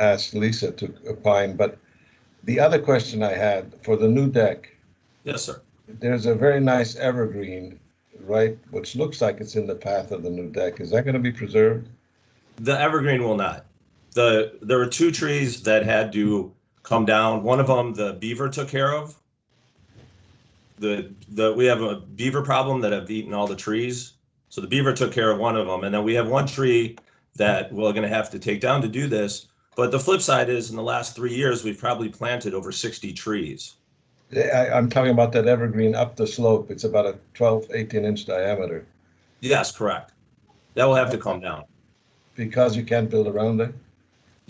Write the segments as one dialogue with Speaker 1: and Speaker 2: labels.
Speaker 1: ask Lisa to opine, but the other question I had for the new deck,
Speaker 2: Yes, sir.
Speaker 1: there's a very nice evergreen, right, which looks like it's in the path of the new deck. Is that going to be preserved?
Speaker 2: The evergreen will not. The, there were two trees that had to come down. One of them, the beaver took care of. The, the, we have a beaver problem that have eaten all the trees. So the beaver took care of one of them. And then we have one tree that we're gonna have to take down to do this. But the flip side is in the last three years, we've probably planted over 60 trees.
Speaker 1: Yeah, I, I'm talking about that evergreen up the slope. It's about a 12, 18 inch diameter
Speaker 2: Yes, correct. That will have to come down.
Speaker 1: because you can't build around it.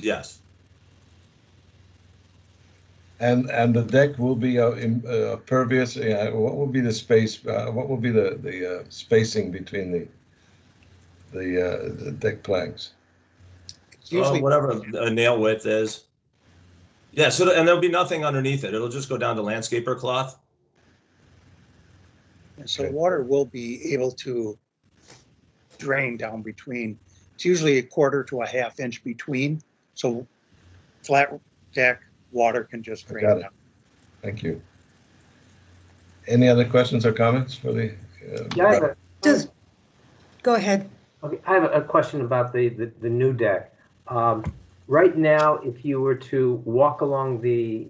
Speaker 2: Yes,
Speaker 1: And, and the deck will be uh, im- uh, pervious, yeah, what will be the space, uh, what will be the, the uh, spacing between the, the, uh, the deck planks?
Speaker 3: It's
Speaker 2: Uh,
Speaker 3: Usually,
Speaker 2: whatever a nail width is. Yeah, so, and there'll be nothing underneath it. It'll just go down to landscaper cloth.
Speaker 3: so water will be able to drain down between. It's usually a quarter to a half inch between, so flat deck, water can just
Speaker 1: I
Speaker 3: drain
Speaker 1: got it.
Speaker 3: down.
Speaker 1: Thank you. Any other questions or comments for the? uh,
Speaker 4: Yeah, I have a,
Speaker 5: Does, go ahead.
Speaker 4: okay, I have a question about the, the, the new deck. Um, right now, if you were to walk along the,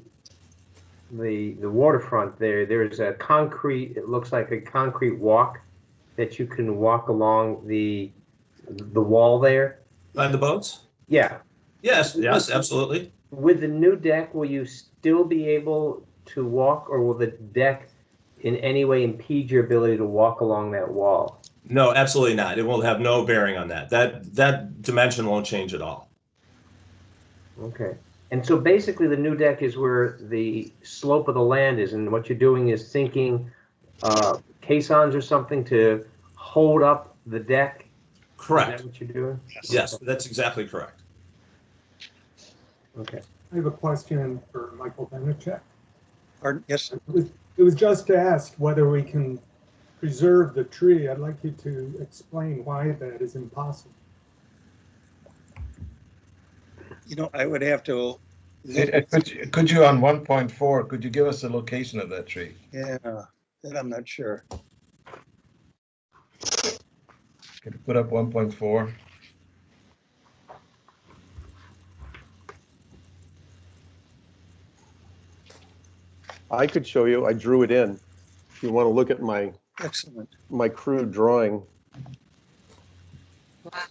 Speaker 4: the, the waterfront there, there's a concrete, it looks like a concrete walk that you can walk along the, the wall there.
Speaker 2: Behind the boats?
Speaker 4: Yeah,
Speaker 2: Yes, yes, absolutely.
Speaker 4: with the new deck, will you still be able to walk or will the deck in any way impede your ability to walk along that wall?
Speaker 2: No, absolutely not. It will have no bearing on that. That that dimension won't change at all.
Speaker 4: Okay. And so basically, the new deck is where the slope of the land is, and what you're doing is sinking uh, caissons or something to hold up the deck. Is that
Speaker 2: Correct.
Speaker 4: what you're doing?
Speaker 2: Yes, that's exactly correct.
Speaker 4: Okay.
Speaker 6: I have a question for Michael Benichek.
Speaker 3: Pardon? Yes,
Speaker 6: It was- it was just asked whether we can preserve the tree. I'd like you to explain why that is impossible.
Speaker 3: you know, I would have to,
Speaker 1: uh, Could you- could you, on one point four, could you give us the location of that tree?
Speaker 3: yeah, that I'm not sure.
Speaker 1: Could you put up one point four?
Speaker 7: I could show you, I drew it in. If you want to look at my,
Speaker 3: Excellent.
Speaker 7: my crude drawing.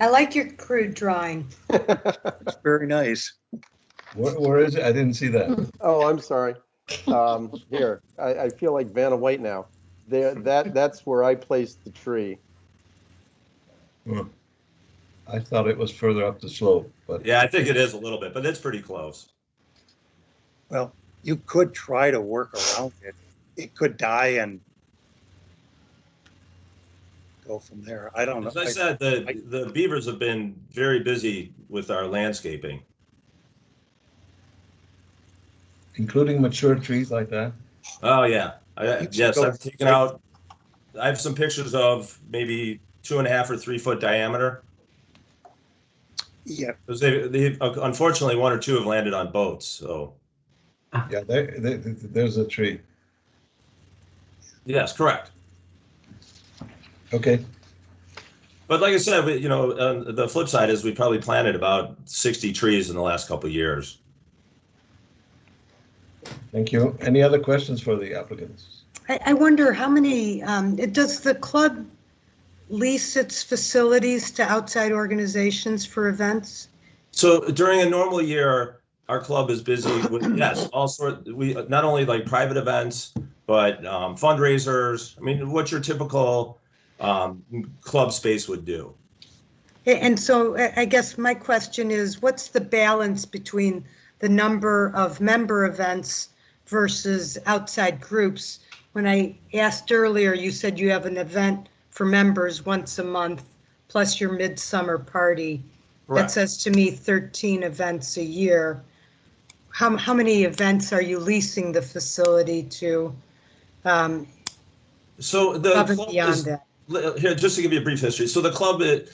Speaker 5: I like your crude drawing.
Speaker 3: It's very nice.
Speaker 1: Where, where is it? I didn't see that.
Speaker 7: Oh, I'm sorry. Um, Here, I, I feel like Vanna White now. There, that, that's where I placed the tree.
Speaker 1: I thought it was further up the slope, but
Speaker 2: Yeah, I think it is a little bit, but it's pretty close.
Speaker 3: Well, you could try to work around it. It could die and go from there. I don't know.
Speaker 2: As I said, the the beavers have been very busy with our landscaping.
Speaker 1: including mature trees like that?
Speaker 2: Oh yeah, I,
Speaker 3: You should
Speaker 2: yes,
Speaker 3: go-
Speaker 2: I've taken out. I have some pictures of maybe two and a half or three foot diameter
Speaker 3: Yeah,
Speaker 2: because they, they uh, unfortunately one or two have landed on boats. So
Speaker 1: Yeah, there, there, there's a tree.
Speaker 2: yes, correct.
Speaker 1: Okay,
Speaker 2: But like I said, we, you know, um, the flip side is we probably planted about 60 trees in the last couple of years.
Speaker 1: thank you. Any other questions for the applicants?
Speaker 5: I, I wonder how many, um, it- does the club lease its facilities to outside organizations for events?
Speaker 2: So during a normal year, our club is busy with yes, all sort. We not only like private events, but um, fundraisers. I mean, what your typical um, club space would do.
Speaker 5: A- And so I I guess my question is, what's the balance between the number of member events versus outside groups? When I asked earlier, you said you have an event for members once a month, plus your midsummer party. That
Speaker 2: Correct.
Speaker 5: says to me 13 events a year. How, how many events are you leasing the facility to? um,
Speaker 2: So the
Speaker 5: Above and
Speaker 2: club
Speaker 5: beyond
Speaker 2: is
Speaker 5: that.
Speaker 2: here, just to give you a brief history. So the club, uh, it,